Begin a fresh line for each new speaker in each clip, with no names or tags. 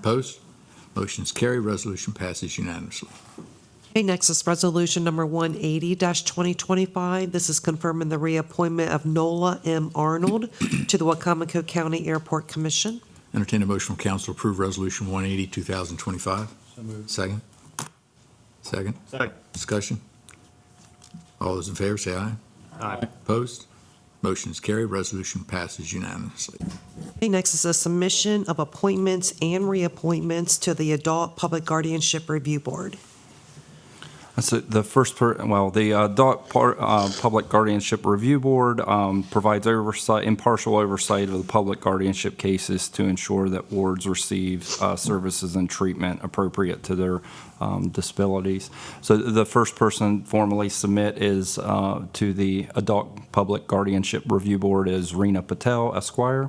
Opposed? Motion's carried. Resolution passes unanimously.
Okay, next is Resolution Number 180-2025. This is confirming the reappointment of Nola M. Arnold to the Wacomico County Airport Commission.
Entertain a motion from council to approve Resolution 180, 2025.
So moved.
Second? Second?
Second.
Discussion? All those in favor say aye.
Aye.
Opposed? Motion's carried. Resolution passes unanimously.
Okay, next is a submission of appointments and reappointments to the Adult Public Guardianship Review Board.
So the first, per- well, the uh, Adult Par- uh, Public Guardianship Review Board um, provides oversight, impartial oversight of the public guardianship cases to ensure that wards receive uh, services and treatment appropriate to their um, disabilities. So the first person formally submit is uh, to the Adult Public Guardianship Review Board is Rena Patel Esquire.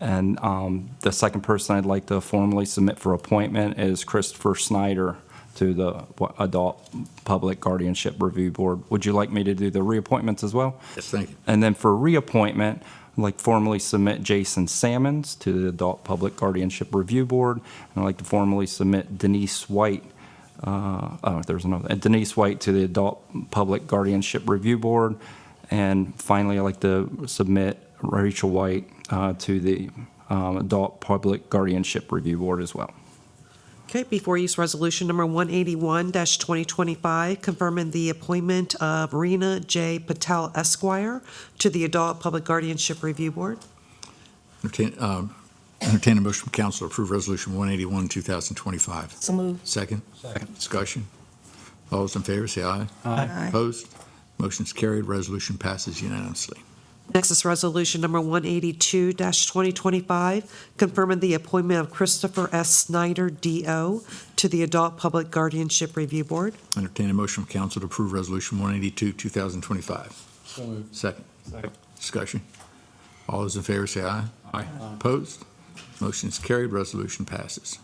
And um, the second person I'd like to formally submit for appointment is Christopher Snyder to the wa- Adult Public Guardianship Review Board. Would you like me to do the reappointments as well?
Yes, thank you.
And then for reappointment, I'd like formally submit Jason Sammons to the Adult Public Guardianship Review Board. And I'd like to formally submit Denise White, uh, oh, there's another, Denise White to the Adult Public Guardianship Review Board. And finally, I'd like to submit Rachel White uh, to the um, Adult Public Guardianship Review Board as well.
Okay, before use Resolution Number 181-2025, confirming the appointment of Rena J. Patel Esquire to the Adult Public Guardianship Review Board.
Entertain, um, entertain a motion from council to approve Resolution 181, 2025.
So moved.
Second?
Second.
Discussion? All those in favor say aye.
Aye.
Opposed? Motion's carried. Resolution passes unanimously.
Next is Resolution Number 182-2025, confirming the appointment of Christopher S. Snyder, D.O., to the Adult Public Guardianship Review Board.
Entertain a motion from council to approve Resolution 182, 2025.
So moved.
Second.
Second.
Discussion. All those in favor say aye.
Aye.
Opposed? Motion's carried. Resolution passes.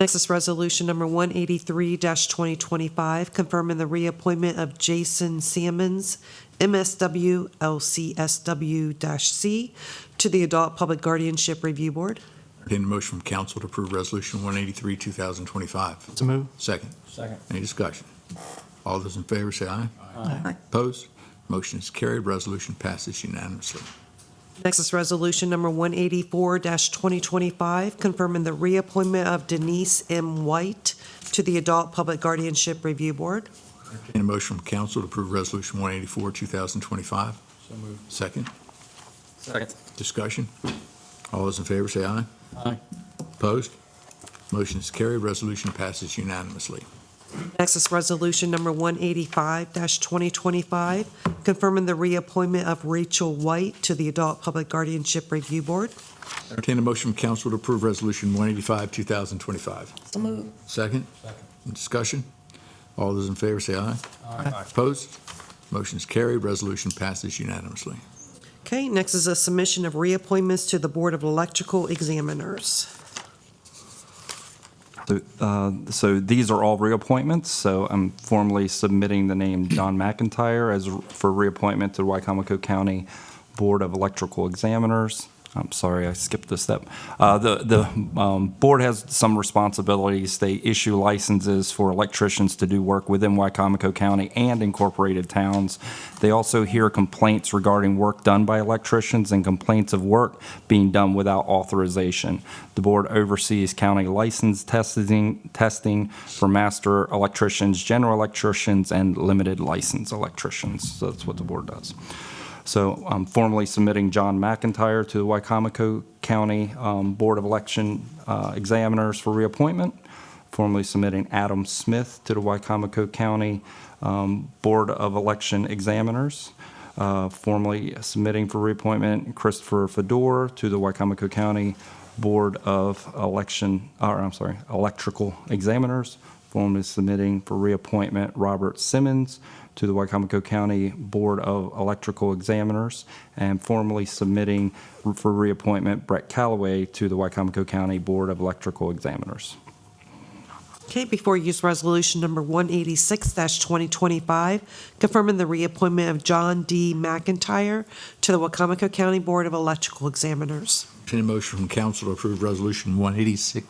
Next is Resolution Number 183-2025, confirming the reappointment of Jason Sammons, MSW LCSW-C, to the Adult Public Guardianship Review Board.
Entertain a motion from council to approve Resolution 183, 2025.
So moved.
Second.
Second.
Any discussion? All those in favor say aye.
Aye.
Opposed? Motion is carried. Resolution passes unanimously.
Next is Resolution Number 184-2025, confirming the reappointment of Denise M. White to the Adult Public Guardianship Review Board.
Entertain a motion from council to approve Resolution 184, 2025.
So moved.
Second.
Second.
Discussion. All those in favor say aye.
Aye.
Opposed? Motion is carried. Resolution passes unanimously.
Next is Resolution Number 185-2025, confirming the reappointment of Rachel White to the Adult Public Guardianship Review Board.
Entertain a motion from council to approve Resolution 185, 2025.
So moved.
Second.
Second.
Discussion. All those in favor say aye.
Aye.
Opposed? Motion is carried. Resolution passes unanimously.
Okay, next is a submission of reappointments to the Board of Electrical Examiners.
So, uh, So these are all reappointments, so I'm formally submitting the name John McIntyre as, for reappointment to the Wycomico County Board of Electrical Examiners. I'm sorry, I skipped this step. Uh, The, the um, board has some responsibilities. They issue licenses for electricians to do work within Wycomico County and incorporated towns. They also hear complaints regarding work done by electricians and complaints of work being done without authorization. The board oversees county license testing, testing for master electricians, general electricians, and limited license electricians. So that's what the board does. So I'm formally submitting John McIntyre to the Wycomico County um, Board of Election uh, Examiners for reappointment, formally submitting Adam Smith to the Wycomico County um, Board of Election Examiners, uh, formally submitting for reappointment Christopher Fedor to the Wycomico County Board of Election, or I'm sorry, Electrical Examiners, formally submitting for reappointment Robert Simmons to the Wycomico County Board of Electrical Examiners, and formally submitting for reappointment Brett Callaway to the Wycomico County Board of Electrical Examiners.
Okay, before you use Resolution Number 186-2025, confirming the reappointment of John D. McIntyre to the Wacomico County Board of Electrical Examiners.
Entertain a motion from council to approve Resolution 186,